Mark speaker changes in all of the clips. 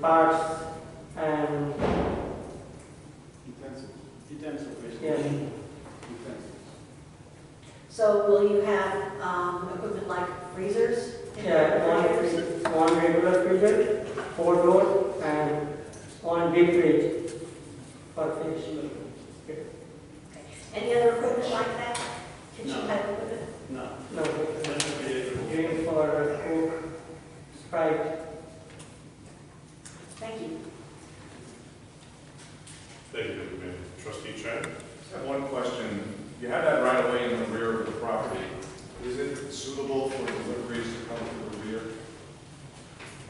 Speaker 1: parts and
Speaker 2: Utensils. Utensils, basically.
Speaker 1: yes,
Speaker 2: Utensils.
Speaker 3: So will you have um, equipment like freezers?
Speaker 1: yeah, one
Speaker 3: Refrigerators?
Speaker 1: one regular freezer, four doors, and one deep fridge for fish.
Speaker 3: Any other equipment like that? Kitchen
Speaker 2: No.
Speaker 3: type equipment?
Speaker 2: No,
Speaker 1: No,
Speaker 2: that's a bit-
Speaker 1: drink for uh, Coke, Sprite.
Speaker 3: Thank you.
Speaker 4: Thank you, Deputy Mayor. Trustee Chang?
Speaker 5: Just have one question. You have that right away in the rear of the property. Is it suitable for deliveries to come through the rear?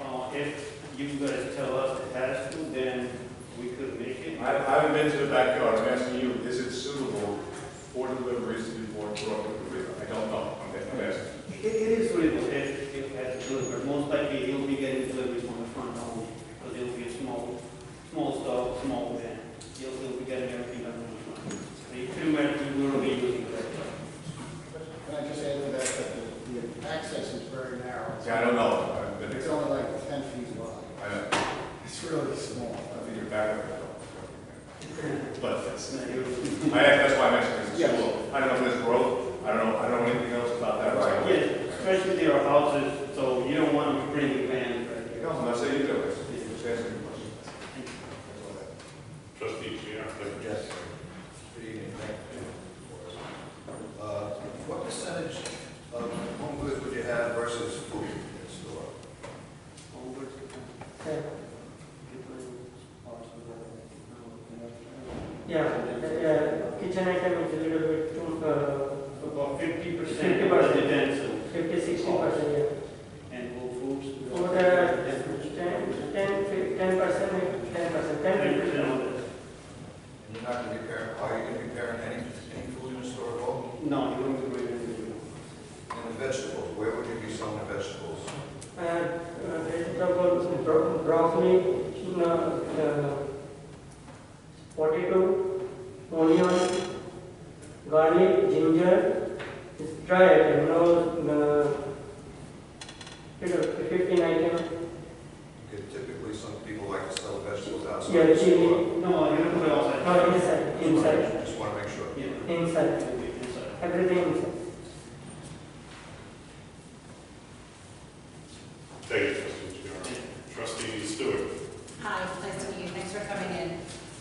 Speaker 2: Uh, if you guys tell us it has to, then we could make it.
Speaker 5: I I haven't been to the backyard. I'm asking you, is it suitable for deliveries to be brought brought through the rear? I don't know. I'm I'm asking.
Speaker 2: It, it is suitable if, if it has delivered, most likely you'll be getting deliveries from the front only, because it'll be a small, small stove, small van. You'll, you'll be getting everything done from the front. So you pretty much, you will be using that.
Speaker 6: Can I just add to that, that the- the access is very narrow.
Speaker 5: See, I don't know. I haven't been
Speaker 6: It's
Speaker 5: there.
Speaker 6: only like ten feet wide.
Speaker 5: I don't, I
Speaker 6: It's really small.
Speaker 5: think you're back up. But that's,
Speaker 2: It's not your-
Speaker 5: I, that's why I'm asking, is it
Speaker 6: Yes.
Speaker 5: suitable? I don't know if there's growth. I don't know, I don't know anything else about that. right?
Speaker 2: Yeah, especially there are houses, so you don't want to bring a van right here.
Speaker 5: No, I'm not saying you do. I'm just asking a question. That's all I have.
Speaker 4: Trustee Chiara?
Speaker 7: Yes. Good evening, thank you. Uh, What percentage of home goods would you have versus food in store?
Speaker 2: Over.
Speaker 1: Yeah, yeah, the, uh, kitchen item is a little bit too, uh,
Speaker 2: About fifty percent
Speaker 1: 50%.
Speaker 2: of residential
Speaker 1: fifty, sixty percent, yeah.
Speaker 2: and whole foods.
Speaker 1: For the ten, ten, fif- ten percent, ten percent, ten
Speaker 2: Ten
Speaker 1: fifty.
Speaker 2: percent of
Speaker 7: And you're not gonna be preparing, are you gonna be preparing any, any food in the store at all?
Speaker 2: it. No, you won't be bringing anything.
Speaker 7: And the vegetables, where would you be selling the vegetables?
Speaker 1: Uh, uh, vegetable, bro- broccoli, uh, uh, potato, onion, garlic, ginger, it's dry item, no, uh, fifteen item,
Speaker 7: Because typically, some people like to sell vegetables outside.
Speaker 1: yeah,
Speaker 7: the store.
Speaker 1: chili,
Speaker 2: No, you don't put it
Speaker 1: no,
Speaker 2: outside.
Speaker 1: inside, inside,
Speaker 7: Just wanna make sure.
Speaker 2: Yeah.
Speaker 1: inside,
Speaker 2: It'll be inside.
Speaker 1: everything inside.
Speaker 4: Thank you, Trustee Chiara. Trustee Stewart?
Speaker 8: Hi, nice to meet you, thanks for coming in.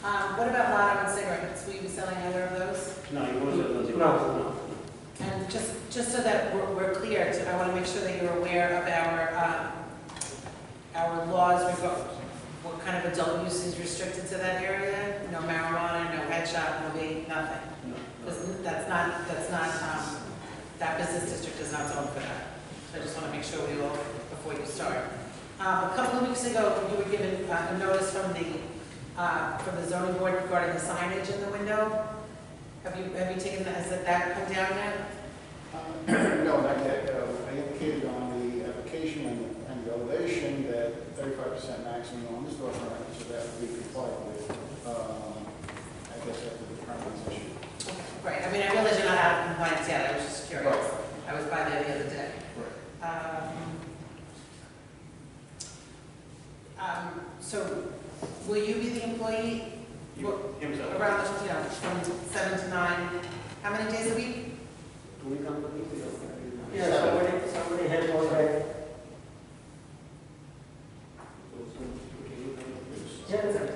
Speaker 8: Um, What about lotto and cigarettes? Will you be selling either of those?
Speaker 2: No, you won't sell nothing.
Speaker 1: No.
Speaker 8: And just, just so that we're we're clear, I want to make sure that you're aware of our, um, our laws, we've got, what kind of adult use is restricted to that area? No marijuana, no head shop, no vape, nothing.
Speaker 2: No.
Speaker 8: Because That's not, that's not, um, that business district is not zoned for that. So I just want to make sure we all, before you start. Um, A couple of weeks ago, you were given uh, a notice from the, uh, from the zoning board regarding the signage in the window. Have you, have you taken, that? has that that come down yet?
Speaker 6: Uh, No, not yet. Uh, I indicated on the application and the- and the elevation that thirty-five percent maximum on the storefront, so that would be complied with. Um, I guess after the permits issue.
Speaker 8: Right, I mean, I realize you're not out of compliance yet, I was just curious.
Speaker 6: Right.
Speaker 8: I was by there the other day. Um, um, So will you be the employee
Speaker 2: You- Himself.
Speaker 8: Around, you know, from seven to nine, how many days a week?
Speaker 2: Do we come to the-
Speaker 1: Yeah, somebody, somebody help on that, yes, yes, seven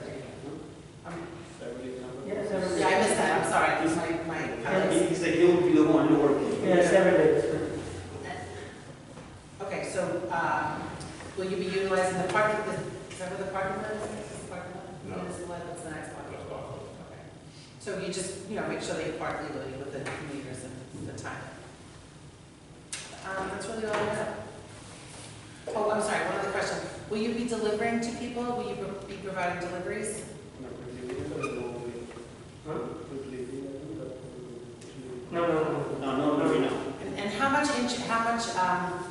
Speaker 8: Yeah, I missed
Speaker 1: days,
Speaker 8: that, I'm sorry, It's my, my comments.
Speaker 2: He said he'll be the one working.
Speaker 1: yeah, seven days.
Speaker 8: Okay, so, um, will you be utilizing the parking, the- is that where the parking lot is? Is the parking lot?
Speaker 4: No.
Speaker 8: This is what- That's the next one.
Speaker 4: That's fine.
Speaker 8: Okay. So you just, you know, make sure that you park legally within the meters and the time. Um, that's really all I have. Oh, I'm sorry, one other question, will you be delivering to people, will you be providing deliveries?
Speaker 1: No, no, no.
Speaker 2: No, no, no, no.
Speaker 8: And and how much, inch- how much, um,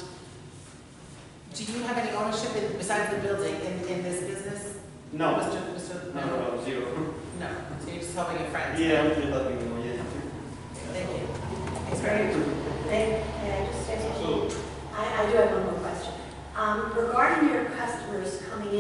Speaker 8: do you have any ownership in- besides the building in, in this business?
Speaker 2: No,
Speaker 8: Mr. Mr.
Speaker 2: no, no, zero.
Speaker 8: No, so you're just helping your friends?
Speaker 2: Yeah, I'm just letting you know, yeah.
Speaker 8: Thank you. It's very
Speaker 3: May may I just say something?
Speaker 4: Absolutely.
Speaker 3: I I do have one more question. Um, Regarding your customers coming in.